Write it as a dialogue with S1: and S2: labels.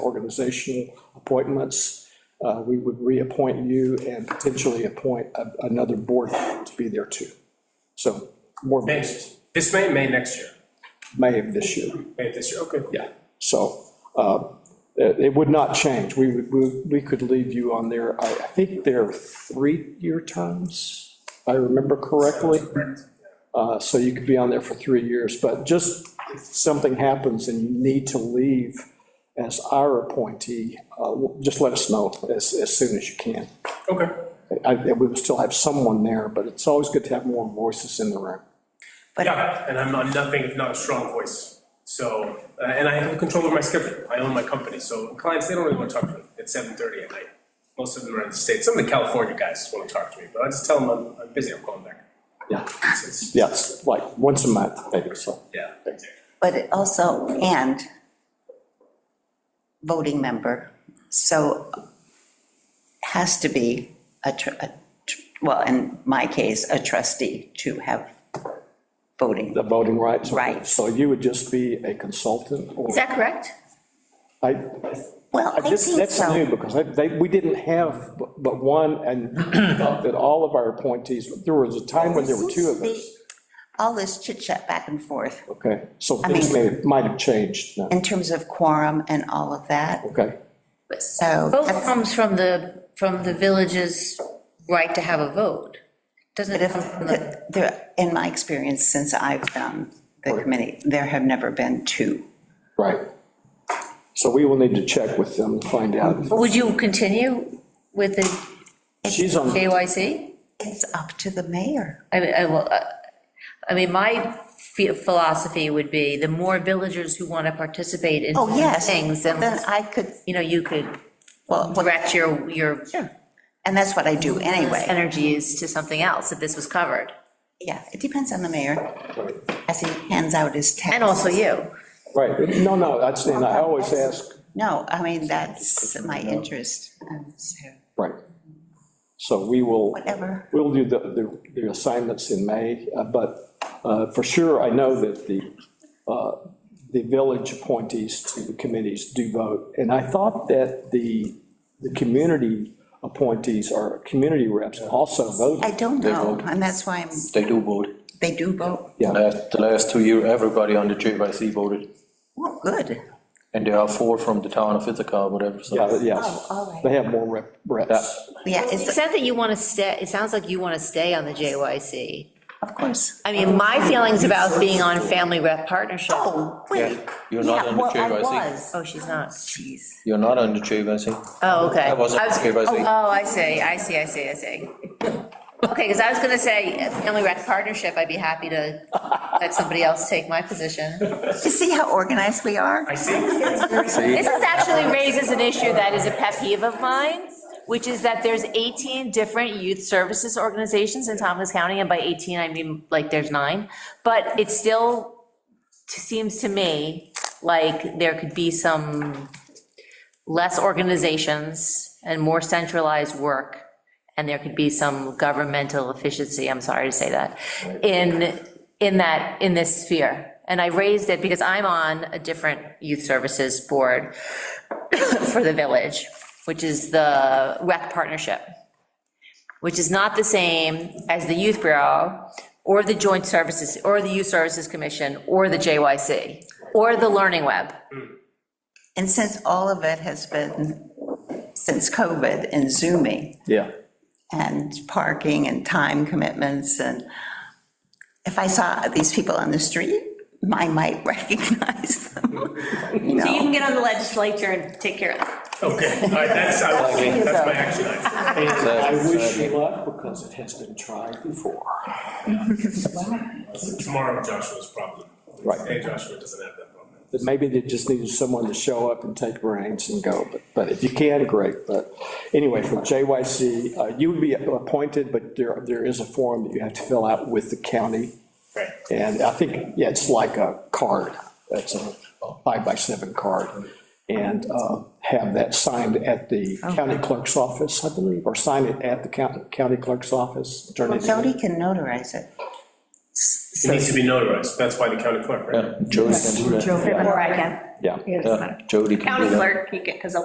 S1: organizational appointments, uh, we would reappoint you and potentially appoint a- another board to be there too. So more
S2: May,
S1: vacancies,
S2: this May, May next year,
S1: May of this year.
S2: May this year, okay.
S1: Yeah, so uh, it it would not change. We, would- we we could leave you on there. I I think they're three-year terms, if I remember correctly. Uh, So you could be on there for three years, but just if something happens and you need to leave as our appointee, uh, just let us know as, as soon as you can.
S2: Okay.
S1: I- I- We would still have someone there, but it's always good to have more voices in the room.
S2: Yeah, and I'm not, nothing if not a strong voice. So, uh, and I have control over my schedule. I own my company, so clients, they don't really want to talk to me at seven thirty at night. Most of them are in the States. Some of the California guys want to talk to me, but I just tell them I'm, I'm busy, I'm calling back.
S1: Yeah,
S2: It's- it's-
S1: yeah, it's like once a month, maybe, so.
S2: Yeah.
S3: but it also, and voting member, so has to be a, tr- a tr- well, in my case, a trustee to have voting.
S1: The voting rights.
S3: Right.
S1: So you would just be a consultant or?
S4: Is that correct?
S1: I,
S3: Well, I
S1: this,
S3: think
S1: that's new
S3: so.
S1: because I- they, we didn't have but- but one and thought that all of our appointees, there was a time when there were two of us.
S3: All this chit chat back and forth
S1: Okay, so
S3: I
S1: things may,
S3: mean-
S1: might have changed now.
S3: in terms of quorum and all of that,
S1: Okay,
S3: so.
S4: Vote
S3: that's-
S4: comes from the, from the village's right to have a vote. Doesn't
S3: But
S4: it come from the,
S3: if, there, in my experience, since I've done the committee, there have never been two.
S1: right. So we will need to check with them to find out.
S4: would you continue with the
S1: She's on,
S4: JYC?
S3: It's up to the mayor.
S4: I mean, I, will, uh, I mean, my phi- philosophy would be the more villagers who want to participate in
S3: Oh, yes.
S4: things, then,
S3: Then I could,
S4: you know, you could
S3: well, well,
S4: direct your, your
S3: sure. And that's what I do anyway.
S4: energies to something else if this was covered.
S3: Yeah, it depends on the mayor as he hands out his text.
S4: And also you.
S1: right, no, no, that's, and I always ask,
S3: No, I mean, that's my interest. and so
S1: right. So we will.
S3: Whatever.
S1: We'll do the, the- the assignments in May, uh, but uh, for sure, I know that the, uh, the village appointees to the committees do vote. And I thought that the, the community appointees or community reps also vote.
S3: I don't know, and that's why I'm,
S5: They do vote.
S3: they do vote.
S1: Yeah.
S5: Last, the last two years, everybody on the JYC voted,
S3: Well, good.
S5: and there are four from the town of Ithaca, or whatever, so.
S1: Yeah, but
S3: Oh,
S1: yes,
S3: all
S1: they
S3: right.
S1: have more rep- reps.
S3: Yeah,
S4: It
S3: it's,
S4: sounds that you want to stay, it sounds like you want to stay on the JYC.
S3: of course.
S4: I mean, my feelings about being on Family Rep Partnership.
S3: Oh, wait.
S5: You're not
S3: Yeah,
S5: on the
S3: well, I
S5: JYC.
S3: was.
S4: Oh, she's not.
S3: Jeez.
S5: You're not on the JYC.
S4: Oh, okay.
S5: I wasn't
S4: was-
S5: JYC.
S4: Oh, oh, I see, I see, I see, I see. Okay, because I was going to say, Family Rep Partnership, I'd be happy to let somebody else take my position.
S3: You see how organized we are?
S2: I see.
S6: This is actually raises an issue that is a pet peeve of mine, which is that there's 18 different youth services organizations in Tompkins County, and by 18, I mean, like, there's nine. But it still t- seems to me like there could be some less organizations and more centralized work, and there could be some governmental efficiency, I'm sorry to say that, in, in that, in this sphere. And I raised it because I'm on a different youth services board for the village, which is the rec partnership, which is not the same as the youth bureau, or the joint services, or the youth services commission, or the JYC, or the learning web.
S3: And since all of it has been, since COVID and Zooming
S1: Yeah.
S3: and parking and time commitments and if I saw these people on the street, I might recognize them. You
S7: So you
S3: know,
S7: can get on the legislature and take care of it.
S2: Okay, all right, that's, I was- that's my action item.
S1: I wish you luck because it has been tried before.
S2: Tomorrow Joshua's problem.
S1: Right.
S2: Hey, Joshua doesn't have that problem.
S1: that maybe they just needed someone to show up and take reins and go, but, but if you can, great, but anyway, for JYC, uh, you would be appointed, but there, there is a form that you have to fill out with the county,
S2: Right.
S1: and I think, yeah, it's like a card, that's a five by seven card, and uh, have that signed at the county clerk's office, I believe, or sign it at the county, county clerk's office, turn it in.
S3: Jody can notarize it.
S2: It needs to be notarized, that's why the county clerk, right?
S5: Yeah, Jody can do that.
S7: Or I can.
S5: Yeah, Jody can do
S7: County
S5: that.
S7: clerk, you can, because